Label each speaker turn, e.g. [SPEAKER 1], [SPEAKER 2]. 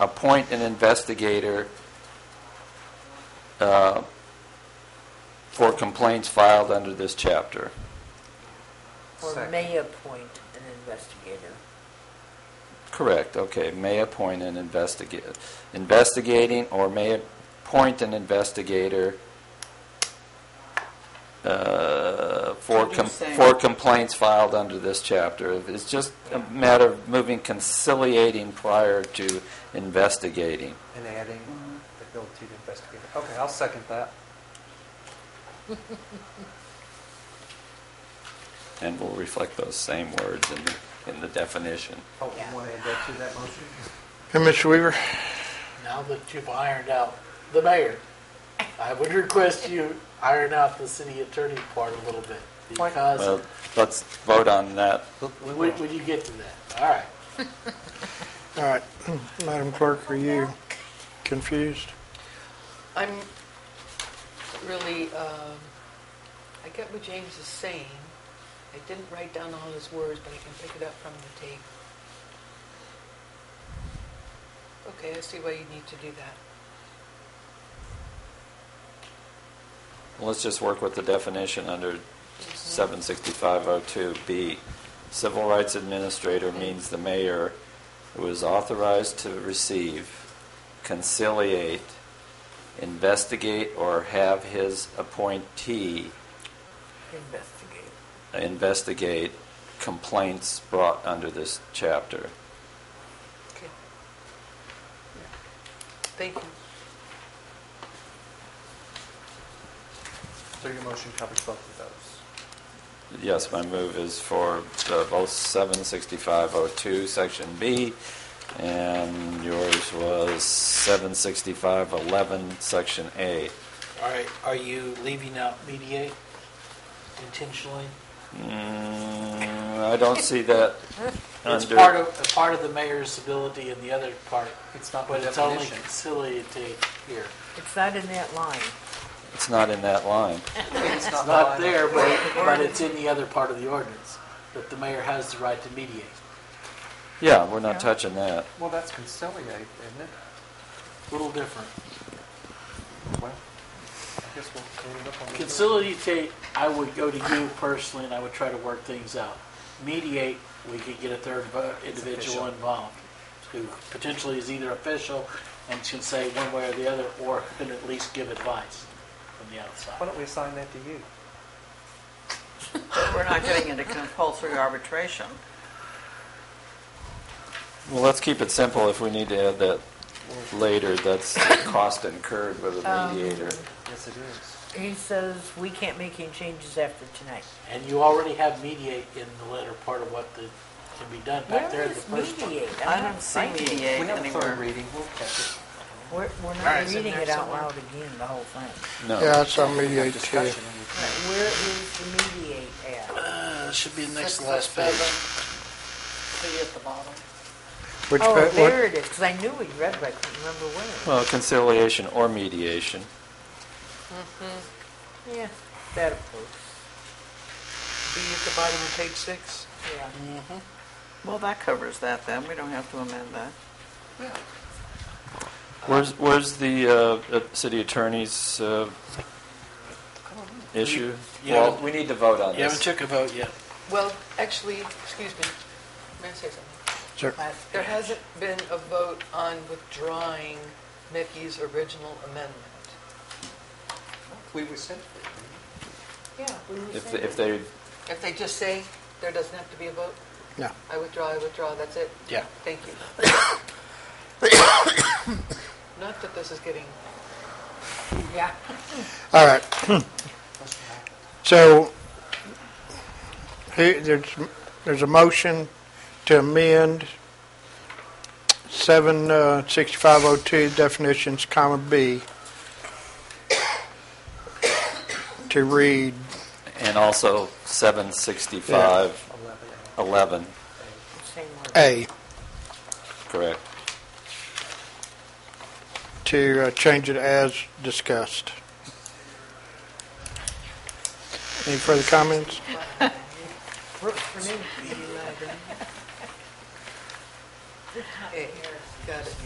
[SPEAKER 1] appoint an investigator uh, for complaints filed under this chapter.
[SPEAKER 2] Or
[SPEAKER 3] Second.
[SPEAKER 2] may appoint an investigator.
[SPEAKER 1] Correct, okay, may appoint an investigator, investigating or may appoint an investigator uh, for,
[SPEAKER 3] What you're
[SPEAKER 1] com-
[SPEAKER 3] saying.
[SPEAKER 1] for complaints filed under this chapter. It's just a matter of moving conciliating prior to investigating.
[SPEAKER 3] And adding the ability to investigate. Okay, I'll second that.
[SPEAKER 1] And we'll reflect those same words in the, in the definition.
[SPEAKER 3] Oh, you
[SPEAKER 2] Yeah.
[SPEAKER 3] want to add that to that motion?
[SPEAKER 4] Commissioner Weaver?
[SPEAKER 5] Now that you've ironed out the mayor, I would request you iron out the city attorney part a little bit.
[SPEAKER 3] Why-
[SPEAKER 5] Because,
[SPEAKER 1] Well, let's vote on that.
[SPEAKER 5] when, when you get to that, all right.
[SPEAKER 4] All right, Hmm, Madam Clerk, are you confused?
[SPEAKER 6] I'm really, um, I get what James is saying. I didn't write down all his words, but I can pick it up from the tape. Okay, I see why you need to do that.
[SPEAKER 1] Let's just work with the definition under 76502B. Civil rights administrator means the mayor who is authorized to receive, conciliate, investigate, or have his appointee
[SPEAKER 2] Investigate.
[SPEAKER 1] investigate complaints brought under this chapter.
[SPEAKER 6] Okay. Thank you.
[SPEAKER 3] So your motion covers both of those.
[SPEAKER 1] Yes, my move is for uh, both 76502, Section B, and yours was 76511, Section A.
[SPEAKER 5] All right, are you leaving out mediate intentionally?
[SPEAKER 1] Mm, I don't see that
[SPEAKER 5] It's
[SPEAKER 1] under...
[SPEAKER 5] part of, a part of the mayor's ability and the other part,
[SPEAKER 3] It's not the
[SPEAKER 5] but it's only
[SPEAKER 3] definition.
[SPEAKER 5] conciliative here.
[SPEAKER 2] It's not in that line.
[SPEAKER 1] It's not in that line.
[SPEAKER 3] It's
[SPEAKER 5] It's not there, but, but it's in the other part of the ordinance, that the mayor has the right to mediate.
[SPEAKER 1] Yeah, we're not
[SPEAKER 2] Yeah.
[SPEAKER 1] touching that.
[SPEAKER 3] Well, that's conciliate, isn't it?
[SPEAKER 5] Little different.
[SPEAKER 3] Well, I guess we'll clean it up on the.
[SPEAKER 5] Conciliate, I would go to you personally, and I would try to work things out. Mediate, we could get a third vo-
[SPEAKER 3] official.
[SPEAKER 5] individual involved, who potentially is either official and can say one way or the other, or can at least give advice from the
[SPEAKER 3] Why
[SPEAKER 5] outside.
[SPEAKER 3] don't we assign that to you?
[SPEAKER 7] But we're not getting into compulsory arbitration.
[SPEAKER 1] Well, let's keep it simple. If we need to add that later, that's the cost incurred with
[SPEAKER 5] Oh.
[SPEAKER 1] a mediator.
[SPEAKER 3] Yes, it is.
[SPEAKER 2] He says we can't make any changes after tonight.
[SPEAKER 5] And you already have mediate in the latter part of what the, can be done back there
[SPEAKER 2] Where
[SPEAKER 5] in the
[SPEAKER 2] is
[SPEAKER 5] first one.
[SPEAKER 2] mediate? I'm
[SPEAKER 7] I
[SPEAKER 2] not
[SPEAKER 7] don't see
[SPEAKER 2] finding it.
[SPEAKER 7] mediate
[SPEAKER 3] We have a third
[SPEAKER 7] anywhere.
[SPEAKER 3] reading, we'll catch it.
[SPEAKER 2] We're, we're
[SPEAKER 7] Alright,
[SPEAKER 2] not
[SPEAKER 7] it's in
[SPEAKER 2] reading
[SPEAKER 7] there
[SPEAKER 2] it out
[SPEAKER 7] somewhere.
[SPEAKER 2] loud again, the whole thing.
[SPEAKER 4] Yeah,
[SPEAKER 1] No.
[SPEAKER 4] it's on
[SPEAKER 3] We have
[SPEAKER 4] mediate too.
[SPEAKER 3] discussion and we can-
[SPEAKER 2] Where is the mediate at?
[SPEAKER 5] Uh, should be the next
[SPEAKER 7] Six
[SPEAKER 5] to
[SPEAKER 7] or
[SPEAKER 5] last
[SPEAKER 7] seven.
[SPEAKER 5] page.
[SPEAKER 7] See at the bottom.
[SPEAKER 4] Which pa-
[SPEAKER 2] Oh,
[SPEAKER 4] what-
[SPEAKER 2] there it is, because I knew we read, but I couldn't remember where.
[SPEAKER 1] Well, conciliation or mediation.
[SPEAKER 2] Yeah, that approves,
[SPEAKER 6] Be uh, at the bottom of page six.
[SPEAKER 2] yeah.
[SPEAKER 5] Mm-hmm.
[SPEAKER 7] Well, that covers that then. We don't have to amend that.
[SPEAKER 1] Where's, where's the uh, uh, city attorney's uh, issue?
[SPEAKER 5] You- you
[SPEAKER 1] Well,
[SPEAKER 5] haven't-
[SPEAKER 1] we need to vote on
[SPEAKER 5] You haven't
[SPEAKER 1] this.
[SPEAKER 5] took a vote yet.
[SPEAKER 6] Well, actually, excuse me, may I say something?
[SPEAKER 4] Sir,
[SPEAKER 2] Last
[SPEAKER 6] There
[SPEAKER 2] page.
[SPEAKER 6] hasn't been a vote on withdrawing Mickey's original amendment.
[SPEAKER 3] We rescind it.
[SPEAKER 6] Yeah.
[SPEAKER 1] If, if they,
[SPEAKER 6] If they just say, there doesn't have to be a vote,
[SPEAKER 4] no.
[SPEAKER 6] I withdraw, I withdraw, that's it?
[SPEAKER 5] Yeah.
[SPEAKER 6] Thank you. Not that this is getting,
[SPEAKER 2] Yeah.
[SPEAKER 4] All right. Hmm. So, he- there's, there's a motion to amend uh, 76502 definitions, comma B, to read,
[SPEAKER 1] and also 765,
[SPEAKER 3] Eleven.
[SPEAKER 1] 11,
[SPEAKER 2] Same word.
[SPEAKER 4] A,
[SPEAKER 1] correct?
[SPEAKER 4] to uh, change it as discussed. Any further comments?
[SPEAKER 2] Works for me.
[SPEAKER 6] eh, got it.